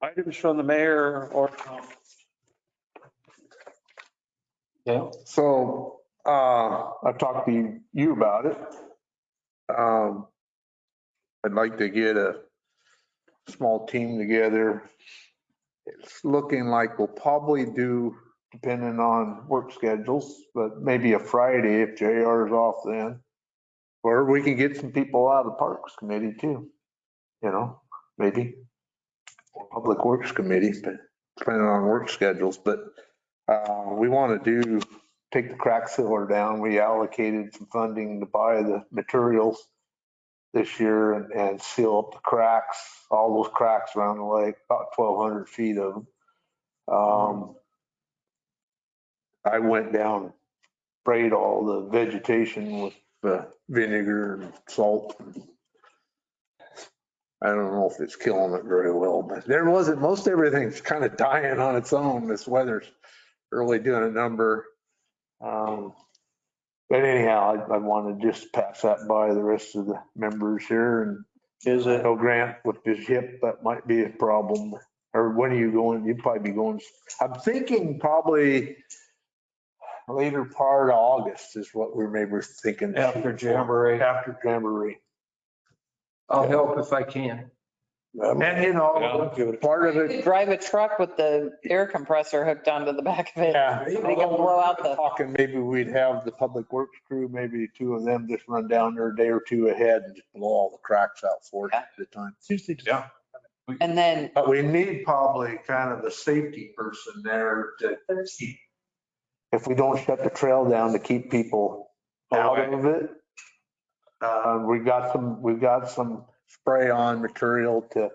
Items from the mayor or. Yeah. So, uh, I've talked to you about it. Um, I'd like to get a small team together. It's looking like we'll probably do, depending on work schedules, but maybe a Friday if JR is off then. Or we can get some people out of the Parks Committee too, you know, maybe. Or Public Works Committee, but depending on work schedules, but uh, we want to do, take the crack sealer down. We allocated some funding to buy the materials this year and, and seal up the cracks, all those cracks around the lake, about 1,200 feet of them. Um, I went down, sprayed all the vegetation with uh, vinegar and salt. I don't know if it's killing it very well, but there wasn't, most everything's kind of dying on its own. This weather's really doing a number. Um, But anyhow, I, I want to just pass that by the rest of the members here and Is it, no Grant with his hip, that might be a problem. Or when are you going? You'd probably be going, I'm thinking probably later part of August is what we're maybe thinking. After Jamboree. After Jamboree. I'll help if I can. And you know, part of could it, drive a truck with the air compressor hooked onto the back of it. yeah. They can blow out the, Talking, maybe we'd have the public works crew, maybe two of them just run down there a day or two ahead and just blow all the cracks out for us at the time. and then But we need probably kind of a safety person there to keep. If we don't shut the trail down to keep people Oh, out of it. Uh, we got some, we got some spray on material to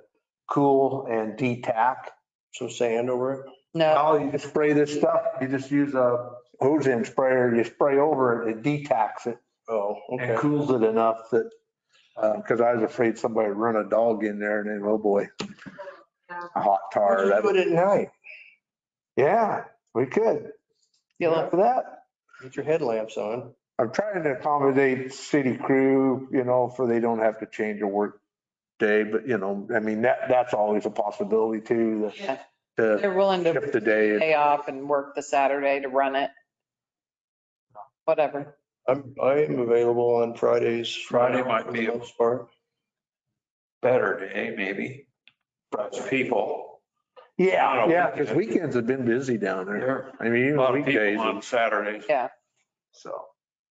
cool and detack. So sand over it? no, Oh, you just spray this stuff, you just use a hose end sprayer, you spray over it, it detacks it Oh, and cools it enough that, uh, cause I was afraid somebody would run a dog in there and then, oh boy. A hot tar, that Do it at night. Yeah, we could. you'll After that, Get your headlamps on. I'm trying to accommodate city crew, you know, for they don't have to change a work day, but you know, I mean, that, that's always a possibility too, Yeah. the, to they're willing to shift the day. pay off and work the Saturday to run it. Whatever. I'm, I am available on Fridays. Friday might be For a- the most part. better day, maybe. For us people. Yeah, yeah, because weekends have been busy down there. There I mean, are a even lot of people on weekdays, Saturdays. so.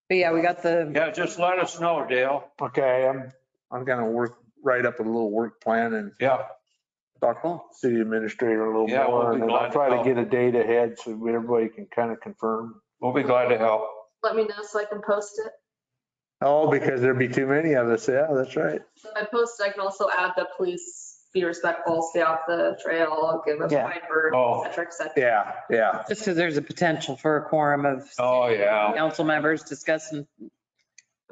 But yeah, we got the, Yeah, just let us know, Dale. Okay, I'm, I'm gonna work, write up a little work plan and Yeah, talk to the city administrator a little Yeah, we'll more. be And then glad I'll to try to help. get a date ahead so everybody can kind of confirm. we'll be glad to help. let me know so I can post it. Oh, because there'd be too many of us. Yeah, that's right. So if I post, I can also add the police, be respectful, stay off the trail, give a Yeah. fine for, Oh. et cetera, et cetera. Yeah, yeah. just because there's a potential for a quorum of Oh, yeah. council members discussing,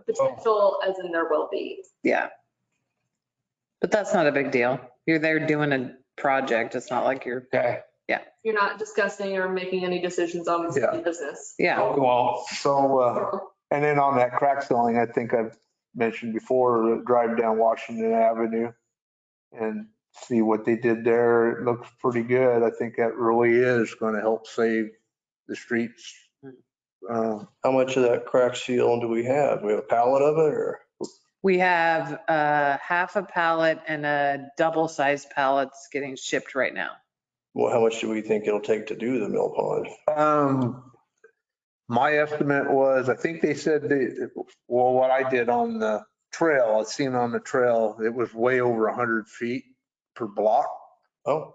Potential as in there will be. yeah. But that's not a big deal. You're there doing a project. It's not like you're, Okay. You're not discussing or making any decisions on Yeah. business. yeah. We won't. So, uh, and then on that crack sealing, I think I've mentioned before, uh, drive down Washington Avenue and see what they did there. It looks pretty good. I think that really is going to help save the streets. Hmm. Uh, How much of that crack seal do we have? We have a pallet of it or? We have a half a pallet and a double-sized pallets getting shipped right now. Well, how much do we think it'll take to do the mill pond? Um, my estimate was, I think they said the, well, what I did on the trail, I seen on the trail, it was way over hundred feet per block. Oh,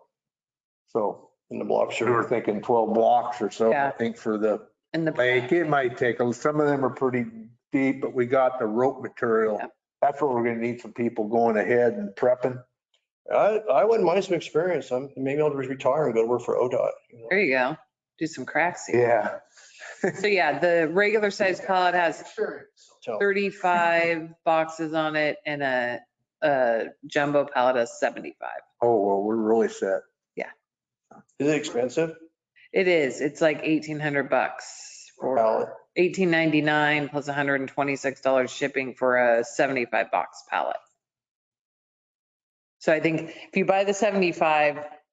So in the block, we were sure. thinking twelve blocks or so, I Yeah. think for the And the, lake. It might take, a- some of them are pretty deep, but we got the rope material. Yeah. That's what we're gonna need some people going ahead and prepping. I, I wouldn't mind some experience. I'm, maybe I'll just retire and go to work for ODOT. you know? there you go. Do some cracks. here. Yeah. So yeah, the regular sized pallet has Tell- 35 boxes on it and a, a jumbo pallet has 75. Oh, well, we're really set. Is it expensive? It is, it's like 1,800 bucks Pallet. for 18.99 plus $126 shipping for a 75 box pallet. So I think if you buy the 75,